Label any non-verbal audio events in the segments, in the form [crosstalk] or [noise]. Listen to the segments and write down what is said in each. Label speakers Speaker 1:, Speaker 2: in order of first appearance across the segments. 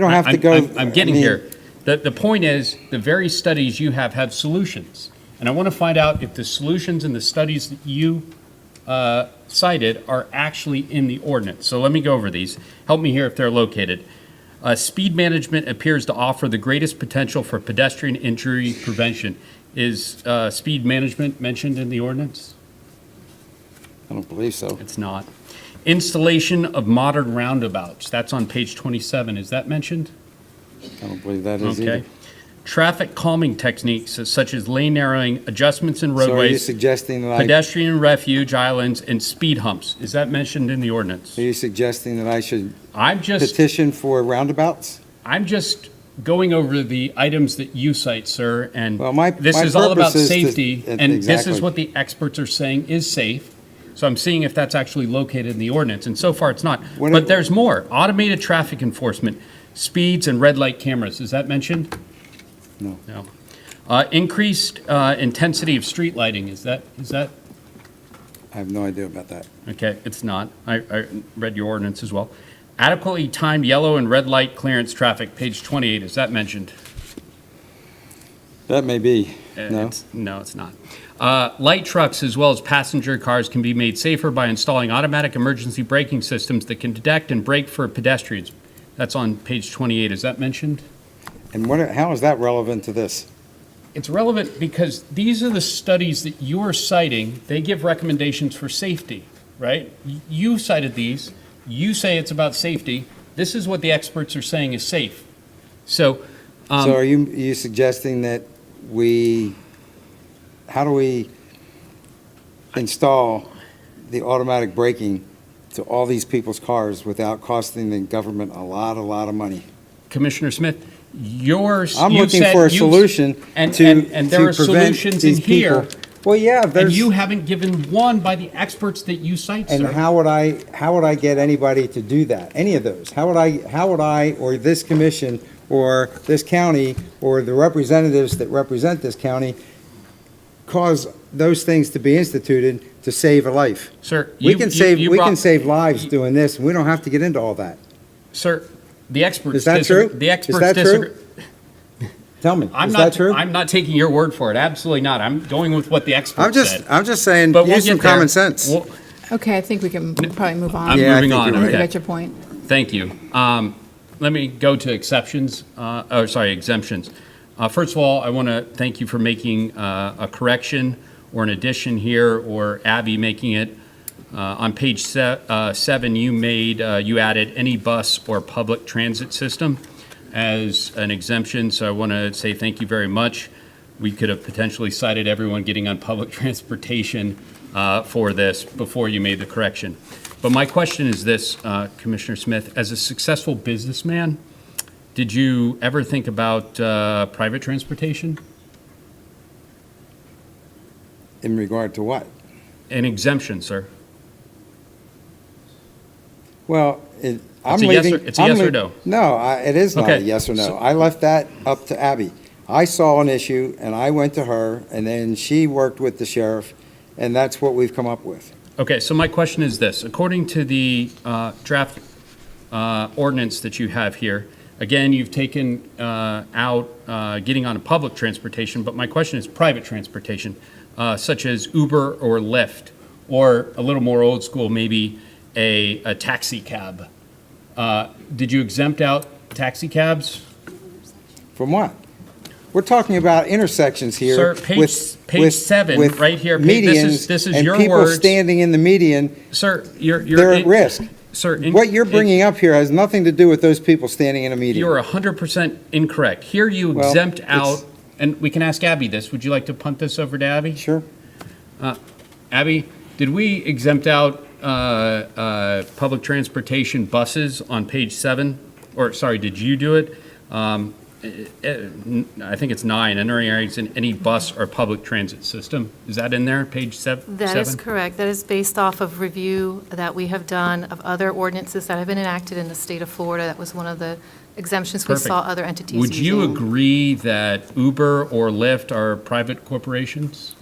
Speaker 1: You don't have to
Speaker 2: I'm-
Speaker 1: go.
Speaker 2: I'm, I'm getting
Speaker 1: I mean,
Speaker 2: here. The, the point is, the very studies you have have solutions. And I want to find out if the solutions and the studies that you uh, cited are actually in the ordinance. So let me go over these. Help me here if they're located. Uh, speed management appears to offer the greatest potential for pedestrian injury prevention. Is uh, speed management mentioned in the ordinance?
Speaker 1: I don't believe so.
Speaker 2: It's not. Installation of modern roundabouts, that's on page 27. Is that mentioned?
Speaker 1: I don't believe that is either.
Speaker 2: Okay. Traffic calming techniques uh, such as lane narrowing, adjustments in
Speaker 1: So are you
Speaker 2: roadways,
Speaker 1: suggesting that I,
Speaker 2: pedestrian refuge islands, and speed humps. Is that mentioned in the ordinance?
Speaker 1: are you suggesting that I should
Speaker 2: I'm just,
Speaker 1: petition for roundabouts?
Speaker 2: I'm just going over the items that you cite, sir, and
Speaker 1: Well, my-
Speaker 2: this
Speaker 1: my
Speaker 2: is all about
Speaker 1: purpose is to-
Speaker 2: safety,
Speaker 1: e-
Speaker 2: and this
Speaker 1: exactly.
Speaker 2: is what the experts are saying is safe. So I'm seeing if that's actually located in the ordinance, and so far it's not.
Speaker 1: When
Speaker 2: But
Speaker 1: it-
Speaker 2: there's more. Automated traffic enforcement, speeds and red light cameras. Is that mentioned?
Speaker 1: No.
Speaker 2: No. Uh, Increased uh, intensity of street lighting, is that, is that,
Speaker 1: I have no idea about that.
Speaker 2: okay, it's not. I, I read your ordinance as well. Adequately timed yellow and red light clearance traffic, page 28, is that mentioned?
Speaker 1: That may be.
Speaker 2: Uh,
Speaker 1: No.
Speaker 2: it's- No, it's not. Uh, Light trucks as well as passenger cars can be made safer by installing automatic emergency braking systems that can detect and brake for pedestrians. That's on page 28, is that mentioned?
Speaker 1: And what, how is that relevant to this?
Speaker 2: It's relevant because these are the studies that you're citing. They give recommendations for safety, right? Y- You cited these. You say it's about safety. This is what the experts are saying is safe. So, um,
Speaker 1: So are you, are you suggesting that we, how do we install the automatic braking to all these people's cars without costing the government a lot, a lot of money?
Speaker 2: Commissioner Smith, yours.
Speaker 1: I'm
Speaker 2: you
Speaker 1: looking
Speaker 2: said-
Speaker 1: for a
Speaker 2: you-
Speaker 1: solution
Speaker 2: and-
Speaker 1: to,
Speaker 2: and- and there
Speaker 1: to
Speaker 2: are
Speaker 1: prevent
Speaker 2: solutions
Speaker 1: these
Speaker 2: in here,
Speaker 1: people- Well, yeah,
Speaker 2: And
Speaker 1: there's,
Speaker 2: you haven't given one by the experts that you cite,
Speaker 1: and
Speaker 2: sir.
Speaker 1: how would I, how would I get anybody to do that, any of those? How would I, how would I, or this commission, or this county, or the representatives that represent this county, cause those things to be instituted to save a life?
Speaker 2: Sir.
Speaker 1: We
Speaker 2: you-
Speaker 1: can
Speaker 2: you-
Speaker 1: save,
Speaker 2: you
Speaker 1: we
Speaker 2: brought-
Speaker 1: can save lives doing this, and we don't have to get into all that.
Speaker 2: Sir, the experts.
Speaker 1: Is that
Speaker 2: disagree-
Speaker 1: true?
Speaker 2: The
Speaker 1: Is
Speaker 2: experts
Speaker 1: that true?
Speaker 2: disagree.
Speaker 1: Tell me,
Speaker 2: I'm
Speaker 1: is
Speaker 2: not,
Speaker 1: that true?
Speaker 2: I'm not taking your word for it. Absolutely not. I'm going with what the experts
Speaker 1: I'm just,
Speaker 2: said.
Speaker 1: I'm just saying,
Speaker 2: But we'll
Speaker 1: use some
Speaker 2: get there.
Speaker 1: common sense.
Speaker 2: We'll-
Speaker 3: Okay, I think we can probably move on.
Speaker 2: I'm
Speaker 1: Yeah, I
Speaker 2: moving
Speaker 1: think
Speaker 2: on.
Speaker 1: you're
Speaker 3: You
Speaker 1: right.
Speaker 2: Okay.
Speaker 3: got your point.
Speaker 2: Thank you. Um, let me go to exceptions. Uh, oh, sorry, exemptions. Uh, first of all, I want to thank you for making uh, a correction or an addition here, or Abby making it. Uh, on page se- uh, seven, you made uh, you added any bus or public transit system as an exemption. So I want to say thank you very much. We could have potentially cited everyone getting on public [laughs] transportation uh, for this before you made the correction. But my question is this, uh, Commissioner Smith, as a successful businessman, did you ever think about uh, private transportation?
Speaker 1: In regard to what?
Speaker 2: An exemption, sir.
Speaker 1: Well, it, I'm
Speaker 2: a yes
Speaker 1: leaving.
Speaker 2: or- it's a
Speaker 1: I'm
Speaker 2: yes or
Speaker 1: lea-
Speaker 2: no.
Speaker 1: No, I, it is not a
Speaker 2: Okay,
Speaker 1: yes or no.
Speaker 2: so-
Speaker 1: I left that up to Abby. I saw an issue and I went to her and then she worked with the sheriff and that's what we've come up with.
Speaker 2: Okay, so my question is this. According to the uh, draft uh, ordinance that you have here, again, you've taken uh, out uh, getting on a public transportation, but my question is private transportation, uh, such as Uber or Lyft, or a little more old school, maybe a a taxi cab. Uh, Did you exempt out taxi cabs?
Speaker 1: From what? We're talking about intersections here.
Speaker 2: Sir, page-
Speaker 1: with-
Speaker 2: page
Speaker 1: with-
Speaker 2: seven,
Speaker 1: with
Speaker 2: right here, pa- this is-
Speaker 1: medians
Speaker 2: this is your
Speaker 1: And people
Speaker 2: words.
Speaker 1: standing in the median,
Speaker 2: Sir, you're. you're
Speaker 1: they're at
Speaker 2: in-
Speaker 1: risk.
Speaker 2: Sir. in-
Speaker 1: What you're
Speaker 2: in-
Speaker 1: bringing up here has nothing to do with those people standing in a median.
Speaker 2: You're 100% incorrect. Here you
Speaker 1: Well,
Speaker 2: exempt
Speaker 1: it's-
Speaker 2: out, and we can ask Abby this. Would you like to punt this over to Abby?
Speaker 1: Sure.
Speaker 2: Abby, did we exempt out uh, uh, public transportation buses on page seven? Or, sorry, did you do it? Um, eh, eh, n- I think it's nine, entering areas in any bus or public transit system. Is that in there, page sev- seven?
Speaker 4: That is correct. That is based off of review that we have done of other ordinances that have been enacted in the state of Florida. That was one of the exemptions we
Speaker 2: Perfect.
Speaker 4: saw other entities
Speaker 2: Would you
Speaker 4: using.
Speaker 2: agree that Uber or Lyft are private corporations?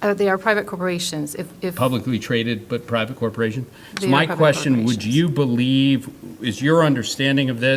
Speaker 4: Uh, They are private corporations. If, if,
Speaker 2: publicly traded but private corporation? So
Speaker 4: They are
Speaker 2: my
Speaker 4: public
Speaker 2: question, would
Speaker 4: corporations.
Speaker 2: you believe, is your understanding of this?